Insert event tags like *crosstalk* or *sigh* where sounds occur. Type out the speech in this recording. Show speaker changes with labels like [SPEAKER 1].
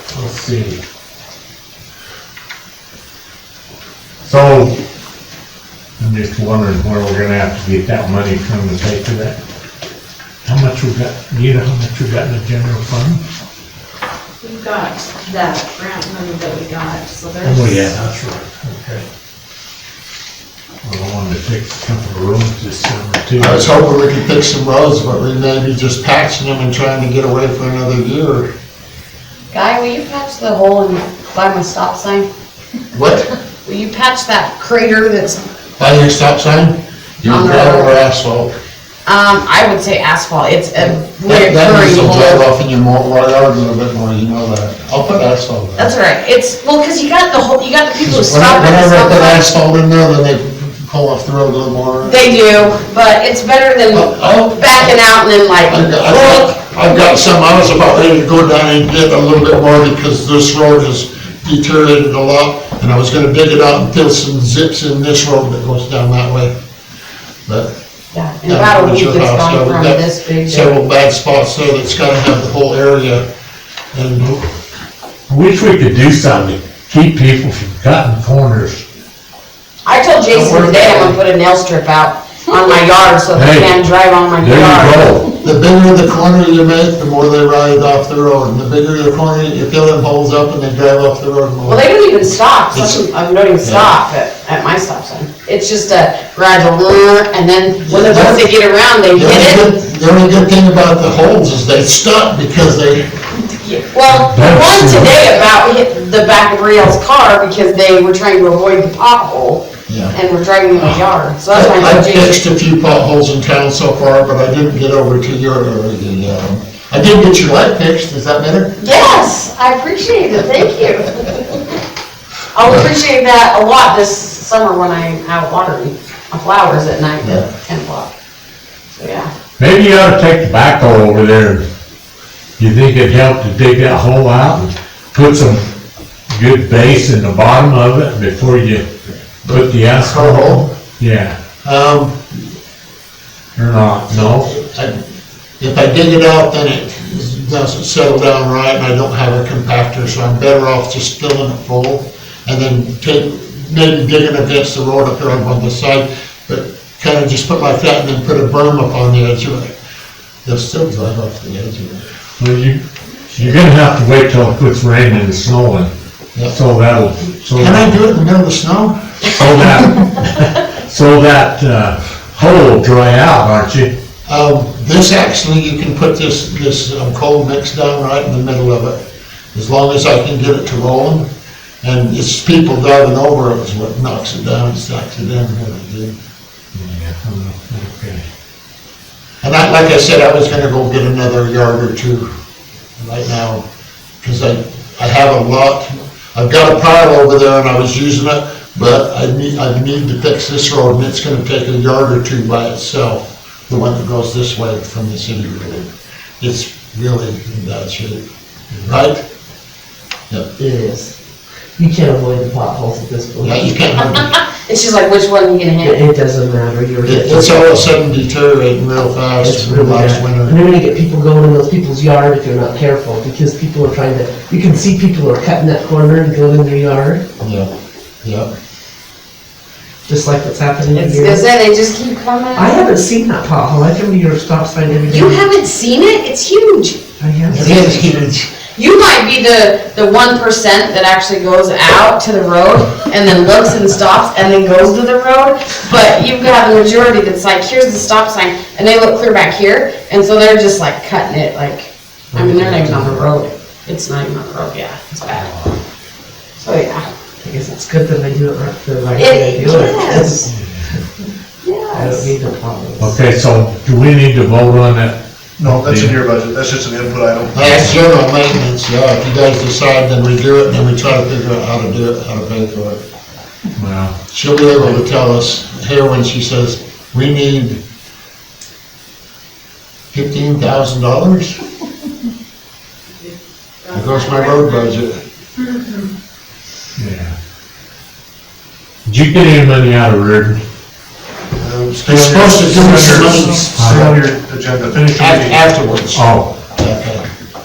[SPEAKER 1] city. So, I'm just wondering where we're gonna have to get that money from to pay for that. How much we got, you know how much we got in the general fund?
[SPEAKER 2] We got that grant money that we got, so there's.
[SPEAKER 1] Oh, yeah, that's right, okay. Well, I wanted to fix a couple of rooms this summer too.
[SPEAKER 3] I was hoping we could fix some roads, but we may be just patching them and trying to get away for another year.
[SPEAKER 4] Guy, will you patch the hole in, by my stop sign?
[SPEAKER 3] What?
[SPEAKER 4] Will you patch that crater that's,
[SPEAKER 3] By your stop sign? Your
[SPEAKER 4] On the
[SPEAKER 3] gravel or
[SPEAKER 4] road.
[SPEAKER 3] asphalt?
[SPEAKER 4] um, I would say asphalt, it's a
[SPEAKER 3] That, that needs
[SPEAKER 4] reoccurring
[SPEAKER 3] to drive
[SPEAKER 4] hole.
[SPEAKER 3] off in your more, yard a little bit more, you know that. I'll put asphalt in.
[SPEAKER 4] That's all right, it's, well, cause you got the whole, you got the people who stop at
[SPEAKER 3] Whenever I put
[SPEAKER 4] the stop sign.
[SPEAKER 3] asphalt in there, then they pull off the road a little more.
[SPEAKER 4] They do, but it's better than
[SPEAKER 3] Oh, oh.
[SPEAKER 4] backing out and then like,
[SPEAKER 3] I've got- I've
[SPEAKER 4] look,
[SPEAKER 3] got- I've got some, I was about ready to go down and get a little bit more because this road has deteriorated a lot. And I was gonna dig it out and fill some zips in this road that goes down that way. But.
[SPEAKER 4] Yeah, in about a
[SPEAKER 3] that's
[SPEAKER 4] week,
[SPEAKER 3] your
[SPEAKER 4] it's
[SPEAKER 3] house, so
[SPEAKER 4] gone
[SPEAKER 3] we've
[SPEAKER 4] from
[SPEAKER 3] got
[SPEAKER 4] this big to,
[SPEAKER 3] Several bad spots there that's gotta have the whole area. And
[SPEAKER 1] I wish we could do something to keep people from cutting corners.
[SPEAKER 4] I told Jason
[SPEAKER 3] Don't worry
[SPEAKER 4] today
[SPEAKER 3] about
[SPEAKER 4] I'm gonna put a nail strip out on my yard so they
[SPEAKER 1] Hey,
[SPEAKER 4] can drive on my yard.
[SPEAKER 1] There you go.
[SPEAKER 3] the bigger the corner you make, the more they ride off the road. And the bigger the corner, you fill them holes up and they drive off the road more.
[SPEAKER 4] Well, they don't even stop, some,
[SPEAKER 3] It's-
[SPEAKER 4] I don't even stop at, at my stop sign. It's just a gradual, uh, and then when the ones that get around, they
[SPEAKER 3] The only
[SPEAKER 4] hit it.
[SPEAKER 3] good- The only good thing about the holes is they stop because they,
[SPEAKER 4] Well, the
[SPEAKER 1] That's
[SPEAKER 4] one
[SPEAKER 1] true.
[SPEAKER 4] today about hit the back of Riel's car because they were trying to avoid the pothole
[SPEAKER 3] Yeah.
[SPEAKER 4] and were driving in the yard, so that's why I
[SPEAKER 3] I've
[SPEAKER 4] told Jason.
[SPEAKER 3] fixed a few potholes in town so far, but I didn't get over to your area. um, I did get your light fixed, is that better?
[SPEAKER 4] Yes, I appreciate it, thank you. I'll appreciate that a lot this summer when I'm out watering my flowers at night
[SPEAKER 3] Yeah.
[SPEAKER 4] at ten o'clock. So, yeah.
[SPEAKER 1] Maybe you ought to take the backhoe over there. You think it'd help to dig that hole out and put some good base in the bottom of it before you put the
[SPEAKER 3] Car
[SPEAKER 1] asphalt?
[SPEAKER 3] hole?
[SPEAKER 1] Yeah,
[SPEAKER 3] Um,
[SPEAKER 1] or not, no?
[SPEAKER 3] I- If I dig it out, then it doesn't settle down right, and I don't have a compactor, so I'm better off just filling it full, and then take, maybe digging against the road up there on the side, but kind of just put like that, and then put a berm up on the edge of it. They'll still drive off the edge of it.
[SPEAKER 1] Well, you, you're gonna have to wait till it quits raining and snowing.
[SPEAKER 3] Yep.
[SPEAKER 1] So that'll, so
[SPEAKER 3] Can I do it in the middle of the snow?
[SPEAKER 1] so that, *laughs* so that, uh, hole will dry out, aren't you?
[SPEAKER 3] Um, this actually, you can put this, this um, cold mix down right in the middle of it, as long as I can get it to rolling. And it's people driving over it is what knocks it down, it's actually down here.
[SPEAKER 1] Yeah, okay.
[SPEAKER 3] And I, like I said, I was gonna go get another yard or two right now, because I, I have a lot. I've got a pile over there and I was using it, but I need, I need to fix this road and it's gonna take a yard or two by itself, the one that goes this way from the city road. It's really in bad shape, right? Yep.
[SPEAKER 5] It is. You can't avoid the potholes at this point.
[SPEAKER 3] Yeah, you
[SPEAKER 5] It
[SPEAKER 3] can't,
[SPEAKER 4] And she's like, which one are you gonna hit?
[SPEAKER 5] it doesn't matter, you're.
[SPEAKER 3] it- it's all of a sudden deteriorating real
[SPEAKER 5] It's
[SPEAKER 3] fast,
[SPEAKER 5] really
[SPEAKER 3] last
[SPEAKER 5] bad. And
[SPEAKER 3] winter.
[SPEAKER 5] you're gonna get people going in those people's yard if you're not careful, because people are trying to, you can see people are cutting that corner and going in their yard,
[SPEAKER 3] Yeah, yeah.
[SPEAKER 5] just like what's happening
[SPEAKER 4] It's gonna
[SPEAKER 5] here.
[SPEAKER 4] say they just keep coming.
[SPEAKER 5] I haven't seen that pothole, I come to your stop sign every day.
[SPEAKER 4] You haven't seen it? It's huge.
[SPEAKER 5] I have.
[SPEAKER 3] It is huge.
[SPEAKER 4] You might be the, the one percent that actually goes out to the road and then looks and stops and then goes to the road. But you've got the majority that's like, here's the stop sign, and they look clear back here, and so they're just like cutting it, like, I mean, they're not even on the road. It's not even on the road, yeah, it's bad. So, yeah.
[SPEAKER 5] Oh, I guess it's good that I do it right the right way I
[SPEAKER 4] It,
[SPEAKER 5] do it. *laughs*
[SPEAKER 4] yes.
[SPEAKER 5] I don't
[SPEAKER 4] Yes.
[SPEAKER 5] need the potholes.
[SPEAKER 1] Okay, so do we need to vote on that?
[SPEAKER 6] No, that's in your budget, that's just an input item.
[SPEAKER 3] That's general maintenance, yeah, if you guys decide, then we do it, and then we try to figure out how to do it, how to pay for it.
[SPEAKER 1] Well,
[SPEAKER 3] She'll be able to tell us here when she says, we need fifteen thousand dollars? There goes my road budget.
[SPEAKER 1] yeah. Did you get any money out of Reardon?
[SPEAKER 3] Um, It's supposed to give us some money
[SPEAKER 6] It's on your agenda, finish your
[SPEAKER 3] af-
[SPEAKER 6] meeting.
[SPEAKER 3] afterwards.
[SPEAKER 1] Oh,